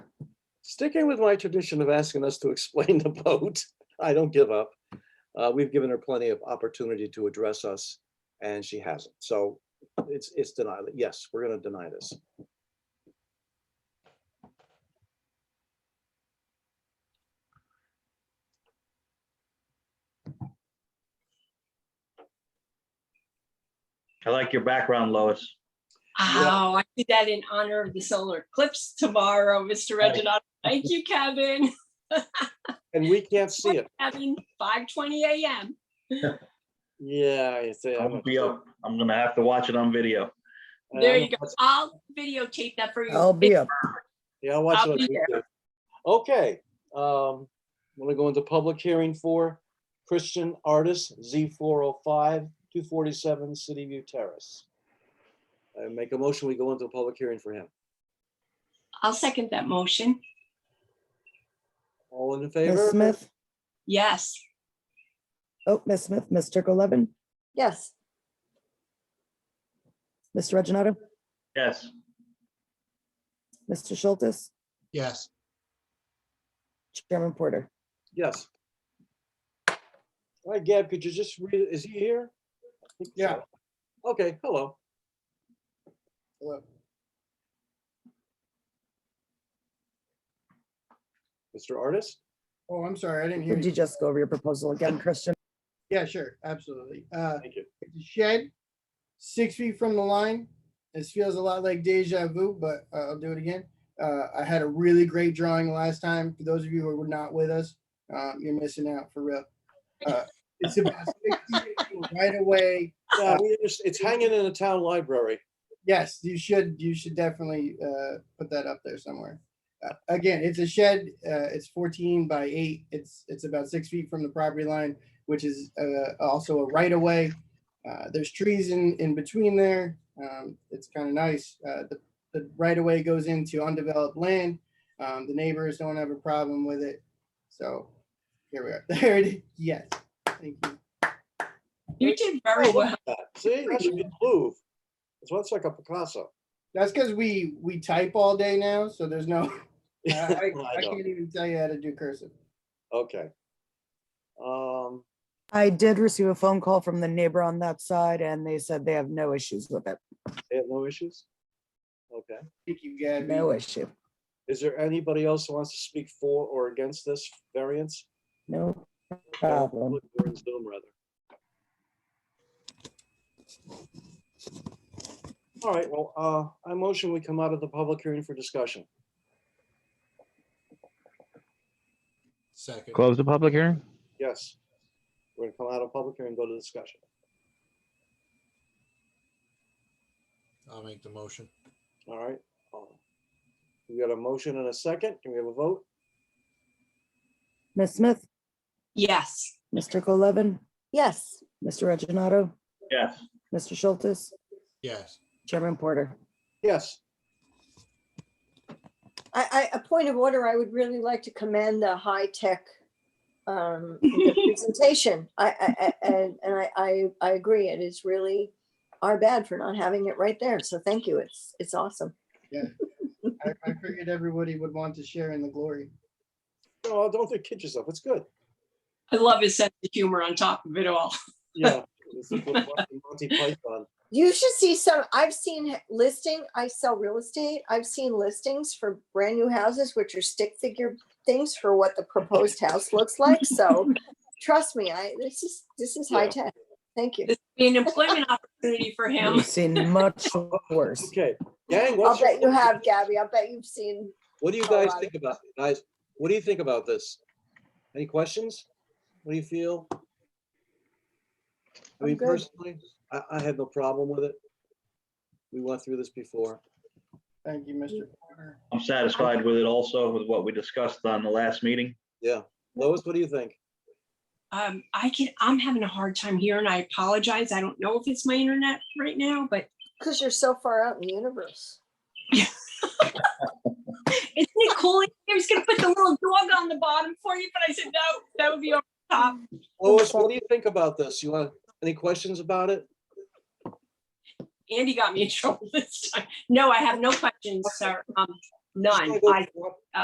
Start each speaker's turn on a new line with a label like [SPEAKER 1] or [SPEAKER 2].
[SPEAKER 1] sticking with my tradition of asking us to explain the vote, I don't give up. Uh, We've given her plenty of opportunity to address us, and she hasn't. So it's, it's denied. Yes, we're going to deny this.
[SPEAKER 2] I like your background, Lois.
[SPEAKER 3] Oh, I did that in honor of the solar eclipse tomorrow, Mr.
[SPEAKER 2] Right.
[SPEAKER 3] Reginald. Thank you, Kevin.
[SPEAKER 1] And we can't see it.
[SPEAKER 3] Kevin, five twenty AM.
[SPEAKER 1] Yeah. it's, uh, I'm
[SPEAKER 2] I'm gonna
[SPEAKER 1] not
[SPEAKER 2] be
[SPEAKER 1] sure.
[SPEAKER 2] up. I'm gonna have to watch it on video.
[SPEAKER 1] Uh,
[SPEAKER 3] There
[SPEAKER 1] I'm
[SPEAKER 3] you go.
[SPEAKER 1] not-
[SPEAKER 3] I'll videotape that for you.
[SPEAKER 4] I'll be up.
[SPEAKER 1] Yeah, I'll watch it.
[SPEAKER 3] I'll
[SPEAKER 1] on
[SPEAKER 3] be there.
[SPEAKER 1] YouTube. Okay. um, Want to go into public hearing for Christian Artist, Z 405, 247 City View Terrace. I make a motion, we go into a public hearing for him.
[SPEAKER 3] I'll second that motion.
[SPEAKER 1] All in
[SPEAKER 4] Ms.
[SPEAKER 1] favor?
[SPEAKER 4] Smith,
[SPEAKER 3] Yes,
[SPEAKER 4] oh, Ms. Smith, Ms. Levin,
[SPEAKER 5] Yes,
[SPEAKER 4] Mr. Reggino,
[SPEAKER 2] Yes,
[SPEAKER 4] Mr. Schultz,
[SPEAKER 6] yes,
[SPEAKER 4] Chairman Porter.
[SPEAKER 1] Yes. All right, Gab, could you just read, is he here? I think
[SPEAKER 6] Yeah.
[SPEAKER 1] so. Okay, hello.
[SPEAKER 6] Hello.
[SPEAKER 1] Mr. Artist?
[SPEAKER 6] oh, I'm sorry, I didn't hear
[SPEAKER 4] Would you
[SPEAKER 6] you.
[SPEAKER 4] just go over your proposal again, Christian?
[SPEAKER 6] Yeah, sure, absolutely. Uh,
[SPEAKER 1] Thank you.
[SPEAKER 6] it's a shed, six feet from the line. This feels a lot like deja vu, but uh, I'll do it again. Uh, I had a really great drawing last time. For those of you who were not with us, um, you're missing out for real. Uh, It's about six feet right away.
[SPEAKER 1] Yeah, we just- It's hanging in the town library.
[SPEAKER 6] Yes, you should, you should definitely uh, put that up there somewhere. Uh, Again, it's a shed, uh, it's 14 by 8, it's, it's about 6 feet from the property line, which is uh, also a right-of-way. Uh, There's trees in, in between there, Um, it's kind of nice. Uh, The, the right-of-way goes into undeveloped land. Um, The neighbors don't have a problem with it, so here we are. There it is, yes, thank you.
[SPEAKER 3] you did
[SPEAKER 1] Oh,
[SPEAKER 3] very
[SPEAKER 1] look
[SPEAKER 3] well.
[SPEAKER 1] at that. See, that should be Louvre. It's looks like a Picasso.
[SPEAKER 6] That's because we, we type all day now, so there's no, Uh, I, I-
[SPEAKER 1] I
[SPEAKER 6] I
[SPEAKER 1] know.
[SPEAKER 6] can't even tell you how to do cursive.
[SPEAKER 1] Okay. Um,
[SPEAKER 4] I did receive a phone call from the neighbor on that side and they said they have no issues with it.
[SPEAKER 1] they have no issues? Okay.
[SPEAKER 6] Thank you, Gabby.
[SPEAKER 4] No issue.
[SPEAKER 1] Is there anybody else who wants to speak for or against this variance?
[SPEAKER 4] No
[SPEAKER 1] Okay,
[SPEAKER 4] problem.
[SPEAKER 1] look, we're in Zoom, rather. All right, well, uh, I motion we come out of the public hearing for discussion.
[SPEAKER 6] Second.
[SPEAKER 7] Close the public hearing?
[SPEAKER 1] Yes. We're gonna come out of public hearing and go to discussion.
[SPEAKER 6] I'll make the motion.
[SPEAKER 1] All right. um, We got a motion and a second. Can we have a vote?
[SPEAKER 4] Ms. Smith,
[SPEAKER 3] Yes,
[SPEAKER 4] Mr. Levin,
[SPEAKER 5] yes,
[SPEAKER 4] Mr. Reggino,
[SPEAKER 2] yes,
[SPEAKER 4] Mr. Schultz,
[SPEAKER 6] Yes.
[SPEAKER 4] Chairman Porter.
[SPEAKER 1] Yes.
[SPEAKER 5] I, I, a point of order, I would really like to commend the high-tech um presentation. I, I, I- and, and I, I, I agree, it is really our bad for not having it right there, so thank you, it's, it's awesome.
[SPEAKER 6] I, I figured everybody would want to share in the glory.
[SPEAKER 1] No, don't think kid yourself. It's good.
[SPEAKER 3] I love his sense of humor on top of it all.
[SPEAKER 1] Yeah. It's like what Monty- Monty Python.
[SPEAKER 5] You should see some, I've seen listing, I sell real estate, I've seen listings for brand new houses, which are stick figure things for what the proposed house looks like, so trust me, I, this is, this is
[SPEAKER 1] Yeah.
[SPEAKER 5] high-tech, thank you.
[SPEAKER 3] This would be an employment opportunity for him.
[SPEAKER 4] We've seen much worse.
[SPEAKER 1] Okay, gang,
[SPEAKER 5] I'll
[SPEAKER 1] what's your-
[SPEAKER 5] bet you have, Gabby. I'll bet you've seen.
[SPEAKER 1] what do you
[SPEAKER 5] a
[SPEAKER 1] guys
[SPEAKER 5] lot of-
[SPEAKER 1] think about, guys, what do you think about this? Any questions? What do you feel? I
[SPEAKER 5] I'm
[SPEAKER 1] mean,
[SPEAKER 5] good.
[SPEAKER 1] personally, I, I had no problem with it. We went through this before.
[SPEAKER 6] Thank you, Mr. Porter.
[SPEAKER 2] I'm satisfied with it also with what we discussed on the last meeting.
[SPEAKER 1] Lois, what do you think?
[SPEAKER 3] Um, I can, I'm having a hard time here and I apologize. I don't know if it's my internet right now, but
[SPEAKER 5] Because you're so far out in the universe.
[SPEAKER 3] isn't it cool? I was gonna put the little dog on the bottom for you, but I said, no, that would be over the top.
[SPEAKER 1] Lois, what do you think about this? You want, any questions about it?
[SPEAKER 3] Andy got me in trouble this time. No, I have no questions, sir. Um, none.
[SPEAKER 1] Just wanna go-
[SPEAKER 3] I